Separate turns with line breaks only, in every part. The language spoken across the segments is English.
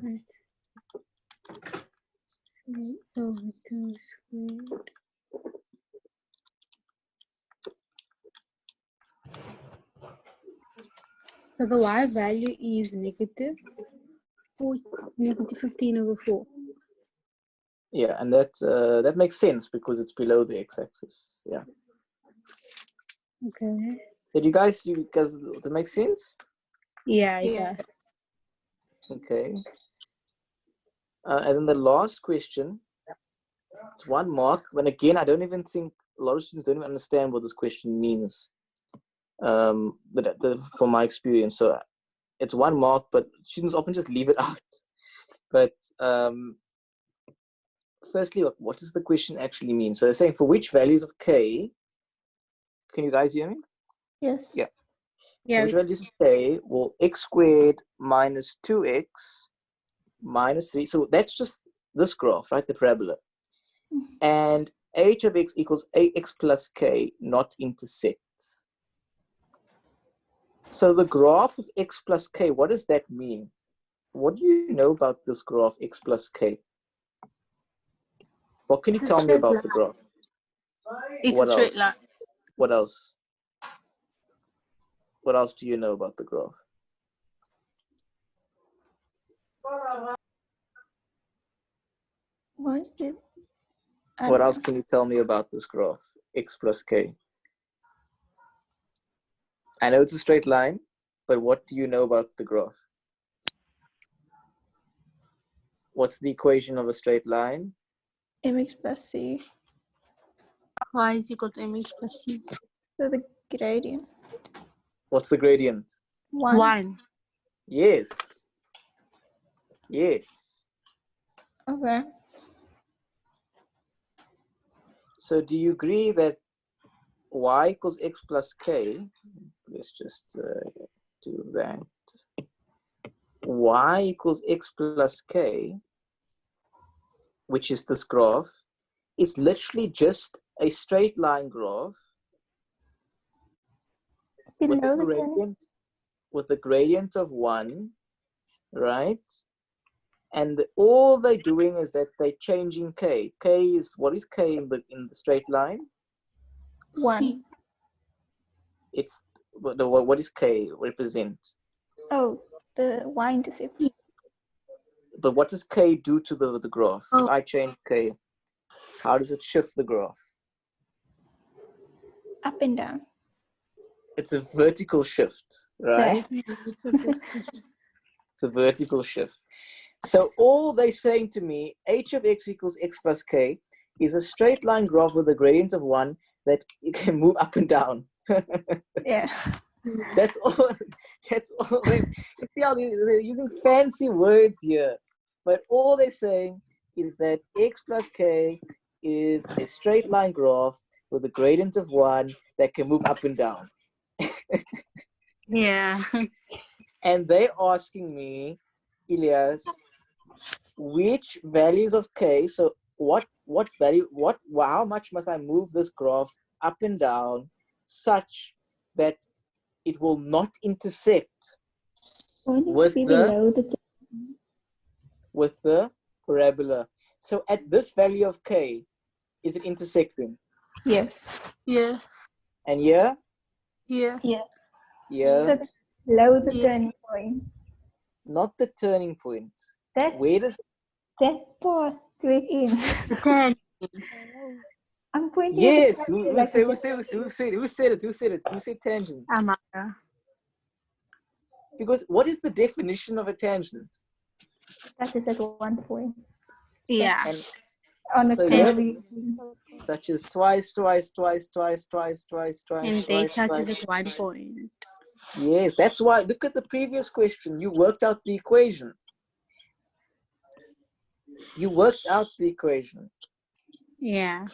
Let's see, over two squared. So the y value is negative four, negative fifteen over four.
Yeah, and that uh, that makes sense because it's below the x-axis. Yeah.
Okay.
Did you guys? You guys, that makes sense.
Yeah, yeah.
Yeah.
Okay. Uh, and then the last question. It's one mark. When again, I don't even think a lot of students don't even understand what this question means. Um, but that- that- from my experience, so it's one mark, but students often just leave it out. But um, firstly, what, what does the question actually mean? So they're saying for which values of k. Can you guys hear me?
Yes.
Yeah.
Yeah,
Which values of k will x squared minus 2x minus 3. So that's just this graph, right? The parabola.
Mm-hmm.
And h of x equals ax plus k not intersect. So the graph of x plus k, what does that mean? What do you know about this graph x plus k? What can you
It's a
tell me
straight
about
line.
the graph?
It's
What
a straight
else?
line.
What else? What else do you know about the graph?
What um, did? I
What
don't
else
know.
can you tell me about this graph? X plus K. I know it's a straight line, but what do you know about the graph? What's the equation of a straight line?
Mx plus c.
y is equal to mx plus c.
So the gradient.
What's the gradient?
One.
One.
Yes. Yes.
Okay.
So do you agree that y equals x plus k? Let's just uh, do that. y equals x plus k, which is this graph, is literally just a straight line graph with the
Below the gradient.
gradient with the gradient of one, right? And the- all they're doing is that they're changing k. K is what is k in the in the straight line?
One.
C.
it's what the- what is k represent
Oh, the y intercept.
but what does k do to the the graph
Oh.
if i change k how does it shift the graph
Up and down.
it's a vertical shift right it's a vertical shift so all they saying to me h of x equals x plus k is a straight line graph with a gradient of one that it can move up and down
Yeah.
That's all. That's all. They, you see how they, they're using fancy words here, but all they're saying is that x plus k is a straight line graph with a gradient of one that can move up and down.
Yeah.
And they're asking me, Elias, which values of k? So what? What value? What? How much must I move this graph up and down such that it will not intersect With the-
below the
with the parabola. So at this value of k, is it intersecting?
Yes.
yes.
And yeah,
Yeah.
Yes.
yeah,
So below the
Yeah.
turning point.
not the turning point.
That
Where does
that part within.
Ten.
I'm pointing. at the
yes? Who,
calculator
who
like
said,
a
who, said, who, said, who said it? Who said it? Who said it? Who said tangent?
Amara.
Because what is the definition of a tangent?
That is at one point
Yeah.
And
on a
So
curve.
such as twice, twice, twice, twice, twice, twice, twice,
And they
twice,
started
twice.
at one point.
Yes, that's why. Look at the previous question. You worked out the equation. You worked out the equation.
Yeah.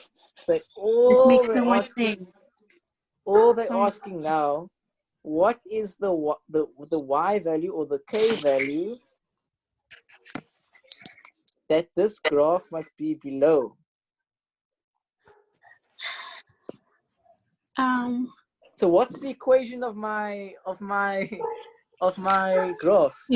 But
It
all
makes
they're
no more
asking
sense.
all they're
Um,
asking now what is the wa- the the y value or the k value that this graph must be below
Um.
so what's the equation of my of my of my graph